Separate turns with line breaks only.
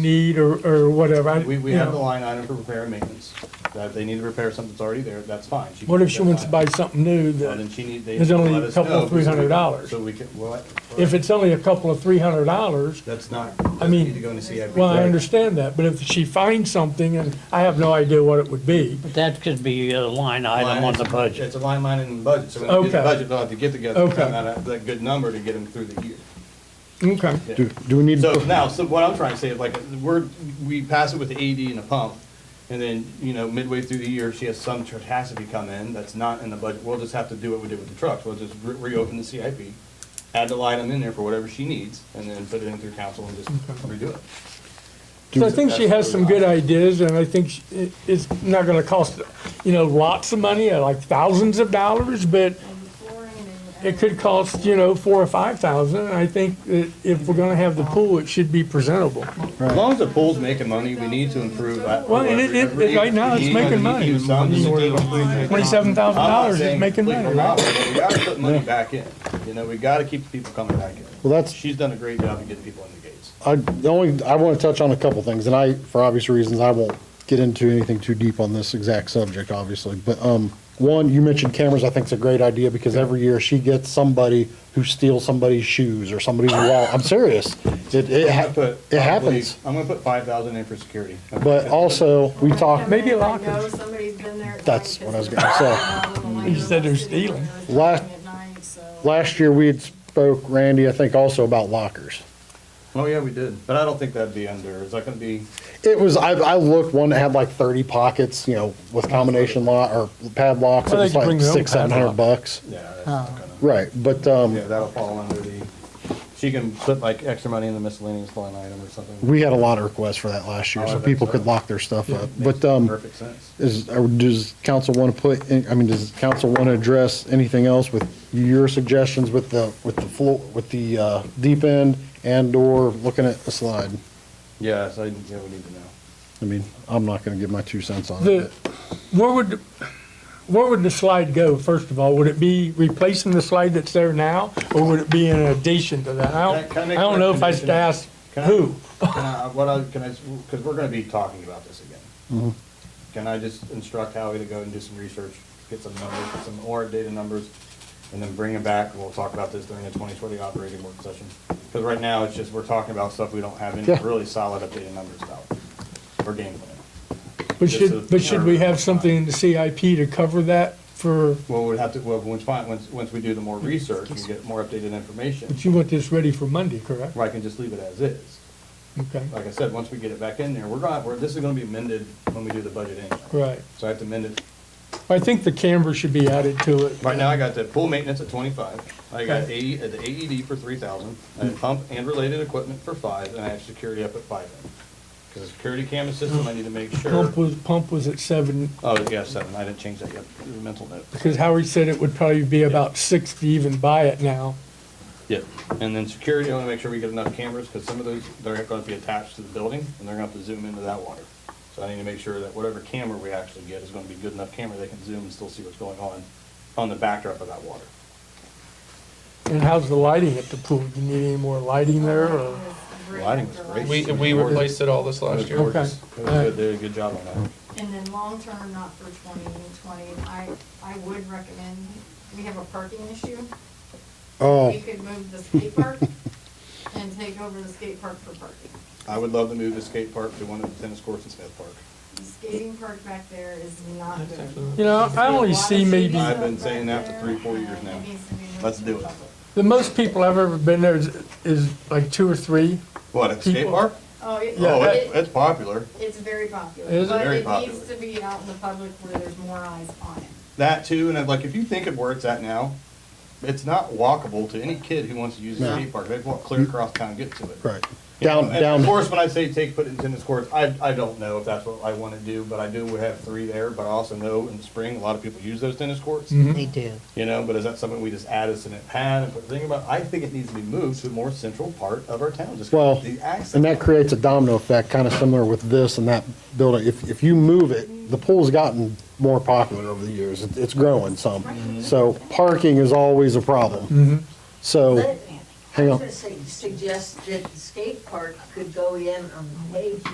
need or, or whatever. I-
We, we
you
have
know.
the line item for repair and maintenance. That if they need to repair something that's already there, that's fine. can
What if
keep
she
that
wants to
line.
buy something new
Well, then
that,
she need, they.
There's only
let
a
us
couple
know
of
so we-
$300.
So we can, well,
if it's only a couple of three hundred dollars,
that's not,
I
I
mean,
mean, need to go into CIP.
well, I understand that, but if she finds something and I have no idea what it would be,
That could be a line item on the budget.
It's a line item in the budget, so when we get
Okay.
the budget, they'll have to get together, and
Okay.
find out that good number to get them through the year.
okay,
Do, do we need,
So
to
now, so what I'm trying to say is like, we're, we pass it with the AD and a pump, and then, you know, midway through the year, she has some catastrophe come in that's not in the budget. We'll just have to do what we did with the trucks. We'll just re- reopen the CIP, add the line item in there for whatever she needs, and then put it in through council and just redo it.
So I think she has some good ideas, and I think she- it- it's not gonna cost, you know, lots of money, uh, like thousands of dollars, but it could cost, you know, four or five thousand, and I think that if we're gonna have the pool, it should be presentable.
As long as the pool's making money, we need to improve that.
Well, and it- it- it- right now, it's
We need-
making
we need
money.
some-
Twenty-seven thousand
I'm not
dollars is
saying
making
completely
money,
not,
right?
but We gotta put money back in, you know, we gotta keep the people coming back in.
Well, that's-
She's done a great job of getting people in the gates.
I, the only, I want to touch on a couple things, and I, for obvious reasons, I won't get into anything too deep on this exact subject, obviously, but, um, one, you mentioned cameras, I think it's a great idea, because every year she gets somebody who steals somebody's shoes or somebody's wallet, I'm serious. It, it,
I'm
ha-
gonna put
it
probably-
happens,
I'm gonna put five thousand in for security.
but also, we talk.
Maybe a
locker.
locker.
That's what I was gonna
say.
You said they're stealing.
Last- last year we had spoke, Randy, I think also about lockers.
Oh, yeah, we did, but I don't think that'd be under, is that gonna be,
It was, I, I looked, one that had like thirty pockets, you know, with combination lock or padlocks, it
Well, they
was
could bring
like
their own
six, seven hundred
padlock.
bucks.
yeah, that's not gonna.
Right, but, um,
Yeah, that'll fall under the, she can put like extra money in the miscellaneous line item or something.
we had a lot of requests for that last year,
Oh, I
so
bet
people
so.
could lock their stuff up.
Makes
But, um,
Perfect sense.
is, or does council want to put, in- I mean, does council want to address anything else with your suggestions with the, with the floor, with the, uh, deep end and/or looking at a slide?
Yes, I, yeah, we need to know.
I mean, I'm not going to give my two cents on
The,
it.
where would, where would the slide go, first of all? Would it be replacing the slide that's there now, or would it be in addition to that? I
Can I- can I
don't, I
make
don't
a
know if I should ask
recommendation? Can I-
who.
Can I, what I, can I, because we're gonna be talking about this again. Can I just instruct Howie to go and do some research, get some numbers, get some ORAD data numbers, and then bring them back, and we'll talk about this during the twenty twenty operating work session? Because right now, it's just, we're talking about stuff we don't have any
Yeah.
really solid updated numbers about, or game plan.
But
Just a-
should, but should we have something in the CIP to cover that for,
Well, we'd have to, well, once, fin- once, once we do the more research and get more updated information,
but you want this ready for Monday, correct?
or I can just leave it as is.
Okay,
Like I said, once we get it back in there, we're gonna, we're, this is gonna be amended when we do the budget anyway.
right.
So I have to amend it
I think the camera should be added to it.
Right now, I got the pool maintenance at twenty-five, I got AE, uh, the AED for three thousand, I
Mm-hmm.
had pump and related equipment for five, and I have security up at five. Because the security camera system, I need to make sure,
Pump was, pump was at seven,
oh, yeah, seven, I didn't change that yet, It was a mental note.
because Howard said it would probably be about six to even buy it now.
Yep. And then security, I wanna make sure we get enough cameras, because some of those, they're gonna be attached to the building, and they're gonna have to zoom into that water. So I need to make sure that whatever camera we actually get is gonna be good enough camera, they can zoom and still see what's going on on the backdrop of that water.
And how's the lighting at the pool? You need any more lighting there, or?
Lighting was great.
We, we replaced it all this last
It
year.
Okay.
was gorgeous. It was good, they did a good job on that.
And then long-term, not for twenty twenty, I, I would recommend, we have a parking issue.
Oh,
We could move the skate park and take over the skate park for parking.
I would love to move the skate park to one of the tennis courts in Smith Park.
The skating park back there is not good.
You know, I only see maybe,
I've been saying that for three, four years now. Let's do it.
the most people I've ever been there is, is like two or three.
What, at the skate
People-
park?
Oh, it,
Oh, it's,
it,
it's popular.
it's very popular.
Is it?
Very
But it
popular.
needs to be out in the public where there's more eyes on it.
That too, and I'm like, if you think of where it's at now, it's not walkable to any kid who wants to use the
No.
skate park. They'd walk clear across town to get to it.
right.
You know,
Down,
and Of
down,
course, when I say take, put it in tennis courts, I, I don't know if that's what I want to do, but I do have three there, but I also know in the spring, a lot of people use those tennis courts.
They do.
You know, but is that something we just add as an pad and put a thing about? I think it needs to be moved to a more central part of our town, just
Well,
the access.
and that creates a domino effect, kind of similar with this and that building. If, if you move it, the pool's gotten more popular over the years. It- It's growing some. So parking is always a problem. So
Andy.
Hang
I was
on.
gonna say, suggest that the skate park could go in on the way here.